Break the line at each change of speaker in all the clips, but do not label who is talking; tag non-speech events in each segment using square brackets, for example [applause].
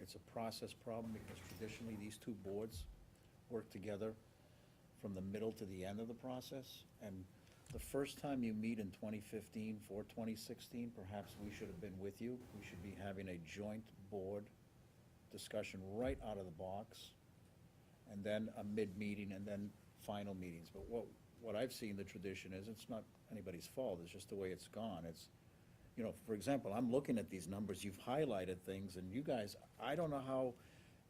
It's a process problem because traditionally, these two boards work together from the middle to the end of the process. And the first time you meet in 2015 for 2016, perhaps we should have been with you. We should be having a joint board discussion right out of the box, and then a mid-meeting, and then final meetings. But what, what I've seen, the tradition is, it's not anybody's fault, it's just the way it's gone. It's, you know, for example, I'm looking at these numbers, you've highlighted things, and you guys, I don't know how,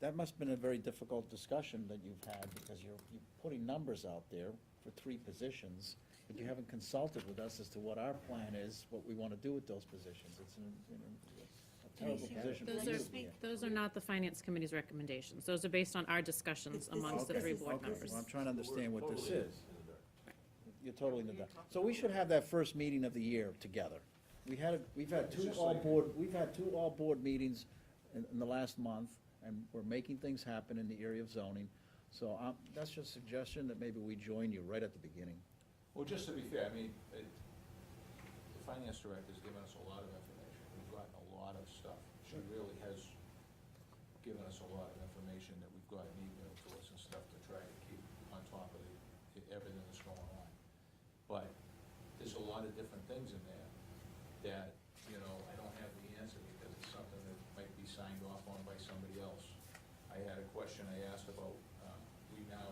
that must've been a very difficult discussion that you've had, because you're, you're putting numbers out there for three positions, but you haven't consulted with us as to what our plan is, what we wanna do with those positions. It's an, you know, a terrible position. for
Those
you.
are, those are not the finance committee's recommendations. Those are based on our discussions amongst the
Okay,
three board
okay.
members.
Well, I'm trying to understand what this
Totally.
is. You're totally in the dark. So we should have that first meeting of the year together. We had, we've had two all-board, we've had two all-board meetings in, in the last month, and we're making things happen in the area of zoning. So, um, that's just a suggestion that maybe we join you right at the beginning.
Well, just to be fair, I mean, it, the finance director's given us a lot of information, we've gotten a lot of stuff. She really has given us a lot of information that we've gotten emailed to us and stuff to try to keep on top of the, everything that's going on. But there's a lot of different things in there that, you know, I don't have the answer because it's something that might be signed off on by somebody else. I had a question I asked about, um, we now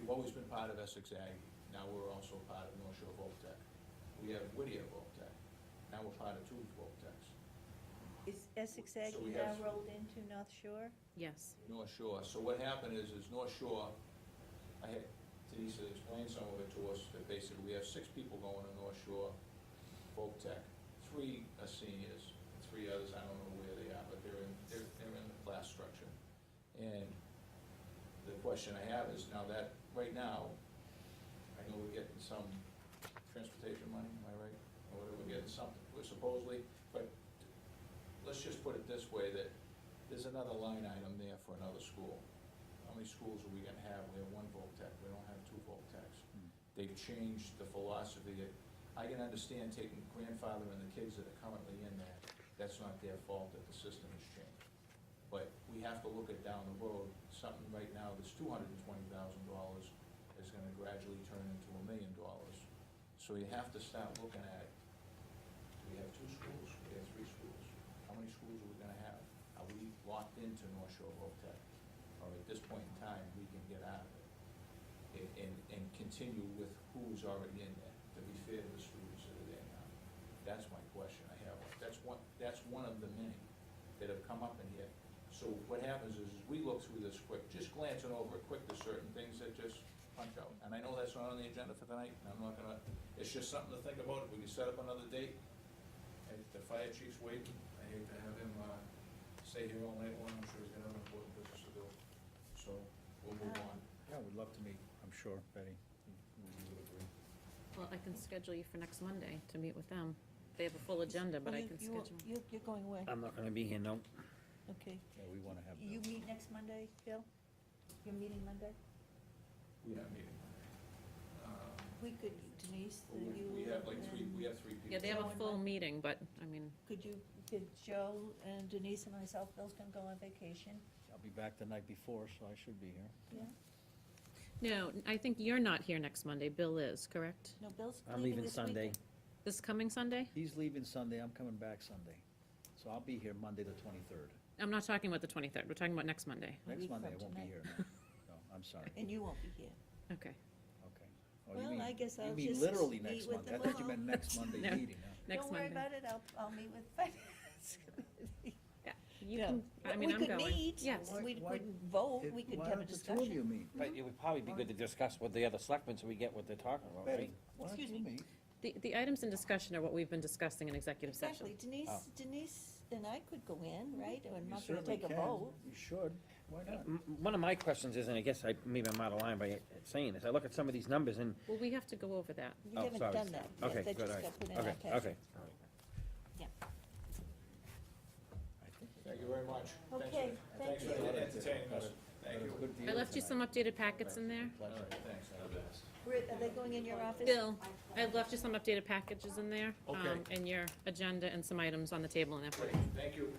We've always been part of Essex Ag, now we're also part of North Shore Voltech. We have Whittier Voltech, now we're part of two Voltechs.
Is Essex Ag
So we
now
have-
rolled into North Shore?
Yes.
North Shore, so what happened is, is North Shore, I had Denise explain some of it to us, that basically we have six people going to North Shore Voltech. Three are seniors, and three others, I don't know where they are, but they're in, they're, they're in the class structure. And the question I have is, now that, right now, I know we're getting some transportation money, am I right? Or whatever, we're getting something, we're supposedly, but let's just put it this way, that there's another line item there for another school. How many schools are we gonna have? We have one Voltech, we don't have two Voltechs. They've changed the philosophy. I can understand taking grandfather and the kids that are currently in that. That's not their fault that the system has changed. But we have to look at down the road, something right now that's two hundred and twenty thousand dollars is gonna gradually turn into a million dollars. So you have to start looking at, do we have two schools? Do we have three schools? How many schools are we gonna have? Are we locked into North Shore Voltech? Or at this point in time, we can get out of it and, and, and continue with who's already in there, to be fair to the students that are there now. That's my question I have. That's one, that's one of the many that have come up in here. So what happens is, is we look through this quick, just glancing over it quick, there's certain things that just punch out. And I know that's not on the agenda for tonight, and I'm not gonna, it's just something to think about. We can set up another date. And the fire chief's waiting. I hate to have him, uh, stay here all night long. I'm sure he's gonna have an important business to do. So we'll move on.
Yeah, we'd love to meet, I'm sure, Betty. You- you would agree.
Well, I can schedule you for next Monday to meet with them. They have a full agenda, but I
You-
can
Oh, you-
schedule. Uh,
you- You're going away,
I'm not gonna be here, no.
okay.
Yeah, we wanna have
You
that.
meet next Monday, Bill? You're meeting Monday?
We have meeting Monday. Um,
We could, Denise,
but
you.
We we have like three,
and-
we have three people.
Yeah, they have a full meeting, but, I mean,
Could you, could Joe and Denise and myself, Bill's gonna go on vacation,
I'll be back the night before, so I should be here.
yeah?
no, I think you're not here next Monday. Bill is, correct?
No, Bill's
I'm
leaving
leaving
this
Sunday.
weekend.
This coming Sunday?
He's leaving Sunday, I'm coming back Sunday. So I'll be here Monday, the 23rd.
I'm not talking about the 23rd. We're talking about next Monday.
A
Next
week
Monday,
from
I won't be
tonight.
here. [laughs] No, No, I'm sorry.
And you won't be here.
Okay.
Okay.
Oh, you
Well,
mean-
I guess
you
I'll
mean
just
literally
meet
next
with
Monday. I
them
thought you
all.
meant next Monday [laughs]
No.
meeting. huh?
Next Monday.
Don't worry about it, I'll, I'll meet with [laughs] finance committee.
You
No.
can, I mean, I'm
We
going.
could meet,
Yes.
Why-
we
why-
could vote,
It-
we could
why
have a
don't the two of you
discussion.
meet?
But it would probably be good to discuss with the other selectmen so we get what they're talking about,
Betty,
right?
why don't
Excuse
you
me.
meet?
The, the items in discussion are what we've been discussing in executive session.
Exactly, Denise,
Oh.
Denise and I could go in, right, Or I'm
You
not gonna
certainly
take a
can.
vote.
You should. Why not?
M- One of my questions is, and I guess I, maybe I'm out of line by saying this, I look at some of these numbers and,
Well, we have to go over that.
We
oh,
haven't
sorry.
done that
Okay,
yet, that
good,
just
all right.
got put in our
Okay,
packet.
okay. all right.
I think it's-
Thank you very much. Thanks for-
Okay, thank
Thanks for
you.
entertaining us. Thank
It was
you.
good
I
deal
left you some
tonight.
updated packets in there.
All
Pleasure.
right, thanks.
Where- Are they going in your office?
Bill, I left you some updated packages in there.
Okay.
um, And your agenda and some items on the table and that.
Great, Thank you.